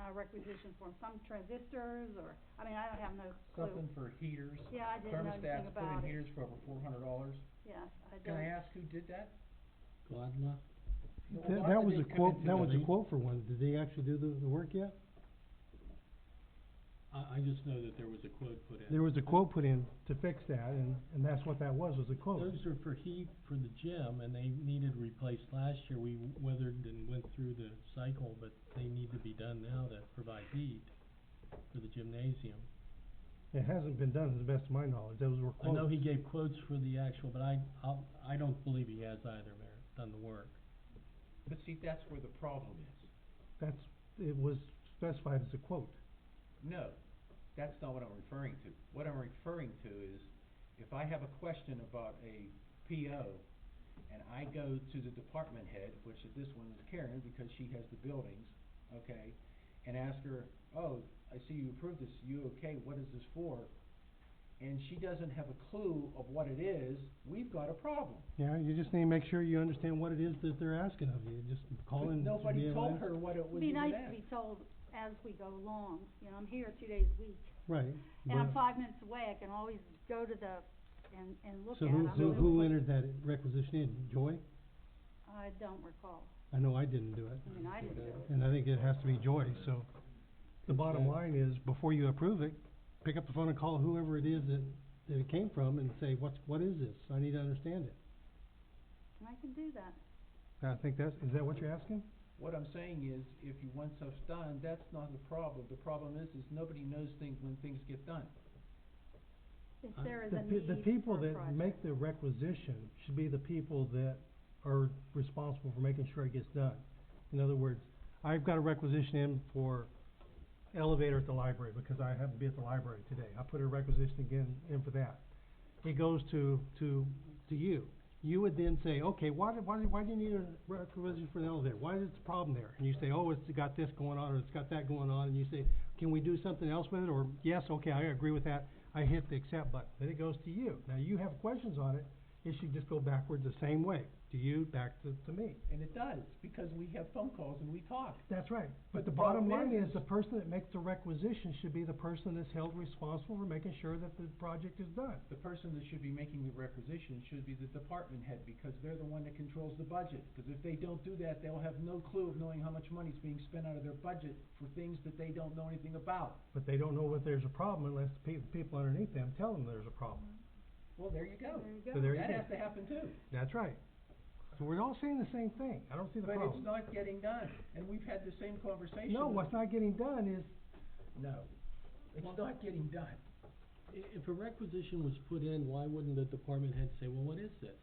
uh, requisition for some transistors or, I mean, I don't have no clue. Something for heaters. Yeah, I didn't know anything Thermostats put about in it. heaters for over four hundred dollars. Yeah, I Can I don't. ask who did that? Gladma? Well, That, why that would was they come a quote, into that the- was a building. quote for one, did they actually do the, the work yet? I, I just know that there was a quote put in. There was a quote put in to fix that, and, and that's what that was, was a quote. Those are for heat for the gym, and they needed replaced last year. We weathered and went through the cycle, but they need to be done now to provide heat for the gymnasium. It hasn't been done, to the best of my knowledge, those were I know quotes. he gave quotes for the actual, but I, I'll, I don't believe he has either, Mayor, done the work. But see, that's where the problem is. That's, it was specified as a quote. No, that's not what I'm referring to. What I'm referring to is, if I have a question about a PO, and I go to the department head, which is this one is Karen, because she has the buildings, okay, and ask her, oh, I see you approved this, you okay, what is this for? And she doesn't have a clue of what it is, we've got a problem. Yeah, you just need to make sure you understand what it is that they're asking of you, just call But in. to be Nobody able to told answer. her what it It'd was be even nice to asked. be told as we go along, you know, I'm here two days a week. Right. And I'm but- five minutes away, I can always go to the, and, and look at So it. who, I'm who, really who quick. entered that requisition in, Joy? I don't recall. I know I didn't do it. I mean, I didn't do it. And I think it has to be Joy, so. The bottom Yeah. line is, before you approve it, pick up the phone and call whoever it is that, that it came from and say, what's, what is this? I need to understand it. And I can do that. I think that's, is that what you're asking? What I'm saying is, if you want stuff done, that's not the problem. The problem is, is nobody knows things when things get done. If I- there is Uh, The a need pe- for the a people that project. make the requisition should be the people that are responsible for making sure it gets done. In other words, I've got a requisition in for elevator at the library because I happen to be at the library today. I put a requisition again in for that. It goes to, to, to you. You would then say, okay, why, do- why, do- why do you need a requisition for an elevator? Why is it a problem there? And you say, oh, it's got this going on or it's got that going on. And you say, can we do something else with it? Or, yes, okay, I agree with that. I hit the accept button, then it goes to you. Now, you have questions on it, it should just go backwards the same way, to you, back to, to me. And it does, because we have phone calls and we talk. That's right, But but the the bottom problem line is- is, the person that makes the requisition should be the person that's held responsible for making sure that the project is done. The person that should be making the requisition should be the department head, because they're the one that controls the budget. Because if they don't do that, they'll have no clue of knowing how much money's being spent out of their budget for things that they don't know anything about. But they don't know what there's a problem unless the pe- the people underneath them tell them there's a problem. Well, there you go. There So you go. there you That go. has to happen too. That's right. So we're all saying the same thing, I don't see the But it's problem. not getting done, and we've had the same conversation. No, what's not getting done is, No, it's not getting done. I- if a requisition was put in, why wouldn't the department head say, well, what is this?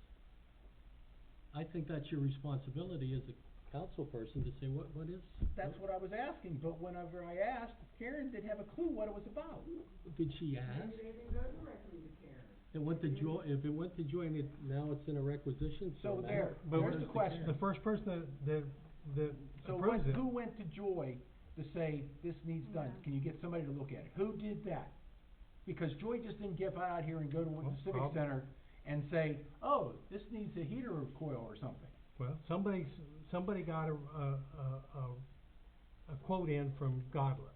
I think that's your responsibility as a council person to say, what, what is? That's what I was asking, but whenever I asked, Karen didn't have a clue what it was about. Did she ask? Maybe they didn't go directly to Karen. It went to Joy, if it went to Joy and it, now it's in a requisition, So so now- there, but there's the Where's the question. the first person that, that, that So what, approves it. who went to Joy to say, this needs done, Mm-hmm. Yeah. can you get somebody to look at it? Who did that? Because Joy just didn't get out here and go to Well, the civic prob- center and say, oh, this needs a heater or coil or something. Well, somebody, s- somebody got a, a, a, a, a quote in from Godler.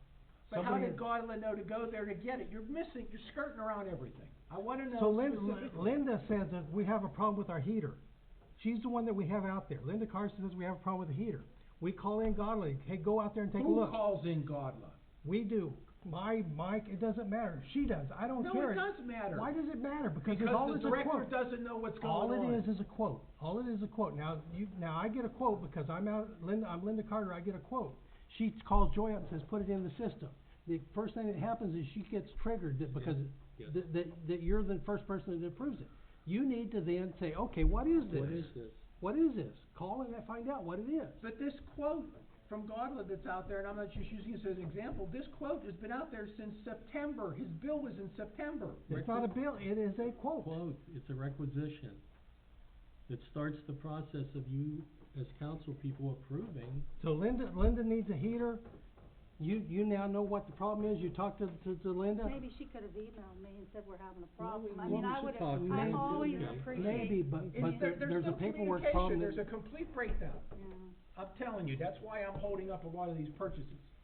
But how Somebody- did Godla know to go there to get it? You're missing, you're skirting around everything. I wanna know So Linda, specifically. Linda says that we have a problem with our heater. She's the one that we have out there. Linda Carson says we have a problem with the heater. We call in Godler, hey, go out there and take a Who look. calls in Godla? We do. My, Mike, it doesn't matter. She does. I don't No, care. it does matter. Why does it matter? Because it's Because all the is a director quote. doesn't know what's going All on. it is is a quote. All it is a quote. Now, you, now I get a quote because I'm out, Linda, I'm Linda Carter, I get a quote. She calls Joy up and says, put it in the system. The first thing that happens is she gets triggered that because, Yeah. that, that, that you're the first person that approves it. You need to then say, okay, what is this? What is this? What is this? Call and find out what it is. But this quote from Godla that's out there, and I'm not just using this as an example, this quote has been out there since September. His bill was in September. It's not a bill, it is a quote. Quote, it's a requisition. It starts the process of you, as council people, approving. So Linda, Linda needs a heater. You, you now know what the problem is. You talk to, to, to Linda. Maybe she could have emailed me and said we're having a Well, problem. I mean, well, we I should would talk have, to I them. always Maybe. appreciate. Maybe, but, It's- but there, there's a no paperwork communication. problem that. There's a complete breakdown. Yeah. I'm telling you, that's why I'm holding up a lot of these purchases.